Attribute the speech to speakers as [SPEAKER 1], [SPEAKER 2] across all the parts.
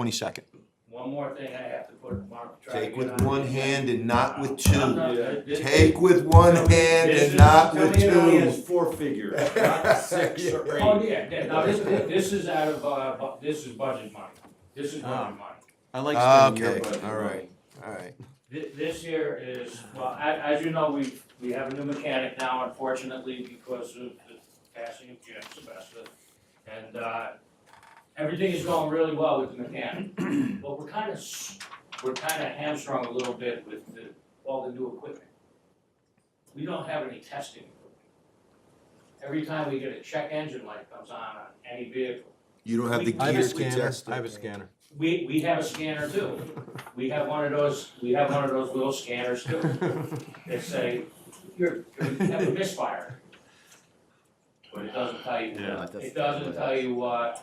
[SPEAKER 1] Twenty-second.
[SPEAKER 2] One more thing I have to put, Mark. try
[SPEAKER 1] Take
[SPEAKER 2] to
[SPEAKER 1] with
[SPEAKER 2] get on
[SPEAKER 1] one
[SPEAKER 2] it.
[SPEAKER 1] hand and not with
[SPEAKER 2] I'm
[SPEAKER 1] two.
[SPEAKER 2] not- this-
[SPEAKER 1] Take with one hand
[SPEAKER 2] This
[SPEAKER 1] and
[SPEAKER 2] is-
[SPEAKER 1] not
[SPEAKER 3] Tell
[SPEAKER 1] with
[SPEAKER 3] me it only has
[SPEAKER 1] two.
[SPEAKER 3] four figures, not six or
[SPEAKER 2] Oh,
[SPEAKER 3] eight.
[SPEAKER 2] yeah, yeah, now this, this is out of, uh, bu- this is budget money, this is
[SPEAKER 3] Ah.
[SPEAKER 2] budget money.
[SPEAKER 3] I like
[SPEAKER 1] Ah,
[SPEAKER 3] spending your
[SPEAKER 1] okay,
[SPEAKER 3] budget
[SPEAKER 1] all right.
[SPEAKER 3] money.
[SPEAKER 1] Alright,
[SPEAKER 2] Thi- This year is, well, as, as you know, we, we have a new mechanic now unfortunately because of the passing of Jim Sylvester. And, uh, everything is going really well with the mechanic, but we're kind of, s- we're kind of hamstrung a little bit with the, all the new equipment. We don't have any testing equipment. Every time we get a check engine light comes on on any vehicle,
[SPEAKER 1] you don't have the
[SPEAKER 3] I have a
[SPEAKER 1] gear to
[SPEAKER 3] scanner,
[SPEAKER 1] test
[SPEAKER 3] I have a
[SPEAKER 1] it.
[SPEAKER 3] scanner.
[SPEAKER 2] we, we have a scanner too. We have one of those, we have one of those little scanners too. They say, you're, you have a misfire. But it doesn't tell you, it doesn't tell you, uh,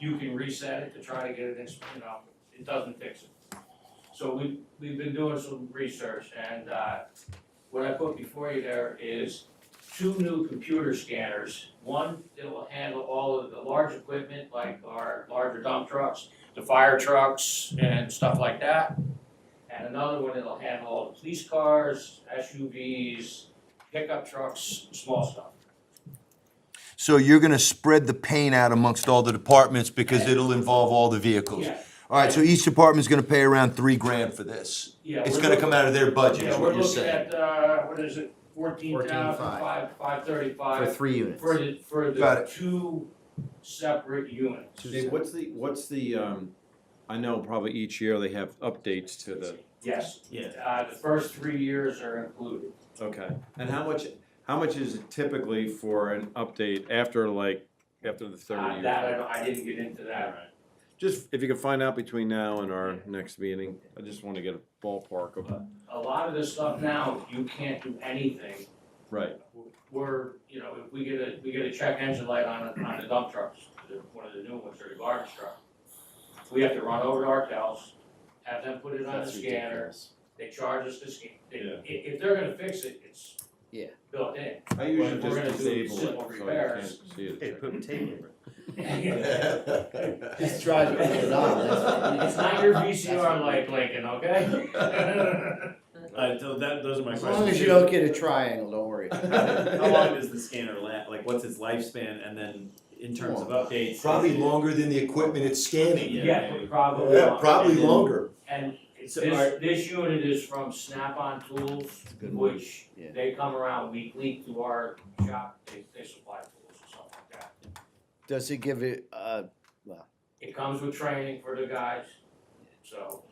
[SPEAKER 2] you can reset it to try to get it, in you know, it doesn't fix it. So we, we've been doing some research and, uh, what I put before you there is two new computer scanners. One that will handle all of the large equipment like our larger dump trucks, the fire trucks and stuff like that and another one that'll handle all the police cars, SUVs, pickup trucks, small stuff.
[SPEAKER 1] So you're gonna spread the pain out amongst all the departments because it'll involve all the vehicles.
[SPEAKER 2] Yeah,
[SPEAKER 1] Alright, so each department's gonna pay around three grand for this.
[SPEAKER 2] yeah.
[SPEAKER 1] It's
[SPEAKER 2] we're
[SPEAKER 1] gonna
[SPEAKER 2] look-
[SPEAKER 1] come out of their budget, is
[SPEAKER 2] Yeah, we're
[SPEAKER 1] what you're
[SPEAKER 2] looking
[SPEAKER 1] saying.
[SPEAKER 2] at, uh, what is it, fourteen thousand, five, five
[SPEAKER 4] For
[SPEAKER 2] thirty-five
[SPEAKER 4] three units.
[SPEAKER 2] for the, for
[SPEAKER 1] Got
[SPEAKER 2] the two separate units.
[SPEAKER 3] Dave, what's the, what's the, um, I know probably each year they have updates to the,
[SPEAKER 2] Yes. Uh, the first three years are included.
[SPEAKER 3] okay. And how much, how much is it typically for an update after like, after the third
[SPEAKER 2] Uh, That, I,
[SPEAKER 3] year?
[SPEAKER 2] don't- I didn't get into that.
[SPEAKER 3] Just if you can find out between now and our next meeting, I just wanna get a ballpark of,
[SPEAKER 2] A lot of this stuff now, you can't do anything
[SPEAKER 3] right,
[SPEAKER 2] we're, you know, if we get a, we get a check engine light on, a- on the dump trucks, the- one of the new ones, or the garbage truck. We have to run over to Arkells, have them put it on the
[SPEAKER 4] That's
[SPEAKER 2] scanner,
[SPEAKER 4] ridiculous.
[SPEAKER 2] they charge us to scan, they,
[SPEAKER 3] Yeah.
[SPEAKER 2] if, if they're gonna fix it, it's
[SPEAKER 4] Yeah.
[SPEAKER 2] built in.
[SPEAKER 3] I
[SPEAKER 2] Well,
[SPEAKER 3] usually
[SPEAKER 2] if we're
[SPEAKER 3] just
[SPEAKER 2] gonna do
[SPEAKER 3] disable it,
[SPEAKER 2] simple
[SPEAKER 3] so you can't
[SPEAKER 2] repairs-
[SPEAKER 3] see it.
[SPEAKER 4] put tape over
[SPEAKER 1] Just
[SPEAKER 4] try to put
[SPEAKER 2] it
[SPEAKER 4] on, that's-
[SPEAKER 2] It's not your VCR like Lincoln, okay?
[SPEAKER 5] Alright, Uh, so that, those are my
[SPEAKER 4] As
[SPEAKER 5] questions.
[SPEAKER 4] long as you don't get a triangle, don't worry.
[SPEAKER 5] How long does the scanner last, like, what's its lifespan, and then in terms of updates? is
[SPEAKER 1] Probably
[SPEAKER 5] it-
[SPEAKER 1] longer than the equipment it's scanning.
[SPEAKER 2] Yeah, probably.
[SPEAKER 1] Yeah,
[SPEAKER 2] not.
[SPEAKER 1] probably
[SPEAKER 5] Yeah.
[SPEAKER 1] longer.
[SPEAKER 2] And this,
[SPEAKER 5] So are-
[SPEAKER 2] this unit is from Snap-on Tools,
[SPEAKER 4] good one.
[SPEAKER 2] which
[SPEAKER 4] Yeah.
[SPEAKER 2] they come around weekly to our shop, they, they supply tools and stuff like that.
[SPEAKER 4] Does it give it, uh,
[SPEAKER 2] It comes with training for the guys, so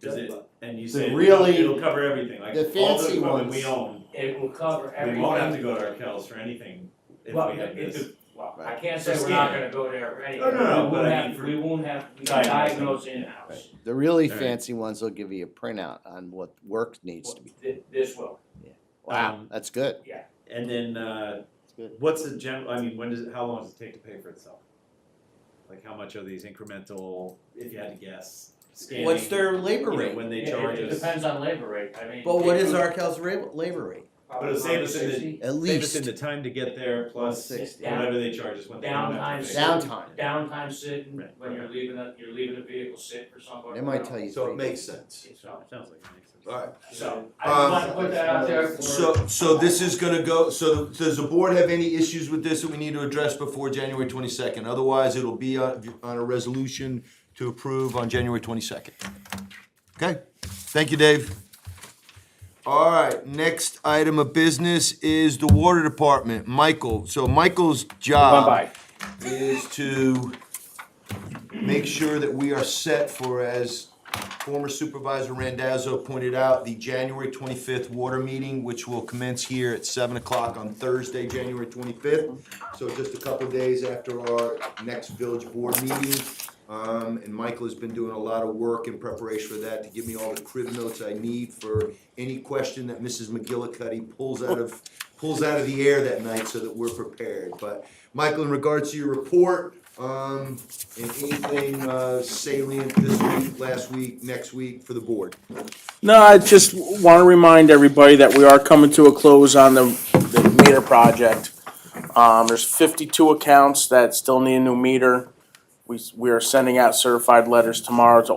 [SPEAKER 5] Does it, and you
[SPEAKER 4] The
[SPEAKER 5] say it'll,
[SPEAKER 4] really-
[SPEAKER 5] it'll cover everything, like,
[SPEAKER 4] the
[SPEAKER 5] all the
[SPEAKER 4] fancy
[SPEAKER 5] equipment
[SPEAKER 4] ones.
[SPEAKER 5] we own,
[SPEAKER 2] it will cover
[SPEAKER 5] we
[SPEAKER 2] everything.
[SPEAKER 5] won't have to go to Arkells for anything if we
[SPEAKER 2] Well,
[SPEAKER 5] have
[SPEAKER 2] it- it-
[SPEAKER 5] this.
[SPEAKER 2] well, I
[SPEAKER 4] Right.
[SPEAKER 2] can't
[SPEAKER 5] For
[SPEAKER 2] say we're not
[SPEAKER 5] scanning.
[SPEAKER 2] gonna go there or anything.
[SPEAKER 5] No, no, no,
[SPEAKER 2] We
[SPEAKER 5] but
[SPEAKER 2] won't
[SPEAKER 5] I mean
[SPEAKER 2] have-
[SPEAKER 5] for
[SPEAKER 2] We won't have, we can
[SPEAKER 5] diagnosing.
[SPEAKER 2] diagnose in-house.
[SPEAKER 4] the really
[SPEAKER 5] All right.
[SPEAKER 4] fancy ones will give you a printout on what work needs to be.
[SPEAKER 2] Th- This will,
[SPEAKER 4] Wow,
[SPEAKER 5] Um,
[SPEAKER 4] that's good.
[SPEAKER 5] And then, uh,
[SPEAKER 4] That's good.
[SPEAKER 5] what's the general, I mean, when does, it- how long does it take to pay for itself? Like, how much are these incremental, if you had to guess, scanning?
[SPEAKER 6] What's their labor
[SPEAKER 5] you know,
[SPEAKER 6] rate?
[SPEAKER 5] When they
[SPEAKER 2] It-
[SPEAKER 5] charge
[SPEAKER 2] it
[SPEAKER 5] us?
[SPEAKER 2] depends on labor rate, I mean.
[SPEAKER 6] But what is
[SPEAKER 2] our?
[SPEAKER 6] Arkell's ra- labor rate?
[SPEAKER 5] But it'll save us in the-
[SPEAKER 4] At
[SPEAKER 5] Save us
[SPEAKER 4] least
[SPEAKER 5] in the time to get there, plus
[SPEAKER 4] 160.
[SPEAKER 5] whatever they charge us when they come back.
[SPEAKER 2] Downtime.
[SPEAKER 4] downtime.
[SPEAKER 2] downtime sitting,
[SPEAKER 5] Right.
[SPEAKER 2] when you're leaving a, you're leaving a vehicle sit for somebody.
[SPEAKER 4] They might tell you.
[SPEAKER 1] So it
[SPEAKER 4] three.
[SPEAKER 1] makes sense.
[SPEAKER 2] So,
[SPEAKER 5] Sounds like it makes sense.
[SPEAKER 1] Alright.
[SPEAKER 2] so I just
[SPEAKER 1] Um,
[SPEAKER 2] wanted to put that out there for.
[SPEAKER 1] So, so this is gonna go, so does the board have any issues with this that we need to address before January twenty-second? Otherwise, it'll be on, on a resolution to approve on January twenty-second. Okay, thank you, Dave. All right, next item of business is the water department, Michael. So Michael's job is to make sure that we are set for, as former Supervisor Randazzo pointed out, the January twenty-fifth water meeting, which will commence here at seven o'clock on Thursday, January twenty-fifth. So just a couple days after our next village board meeting. Um, and Michael has been doing a lot of work in preparation for that to give me all the crib notes I need for any question that Mrs. McGillicuddy pulls out of, pulls out of the air that night so that we're prepared. But Michael, in regards to your report, um, and anything uh, salient this week, last week, next week for the board?
[SPEAKER 7] No, I just want to remind everybody that we are coming to a close on the, the meter project. Um, there's fifty-two accounts that still need a new meter. We, s- we are sending out certified letters tomorrow to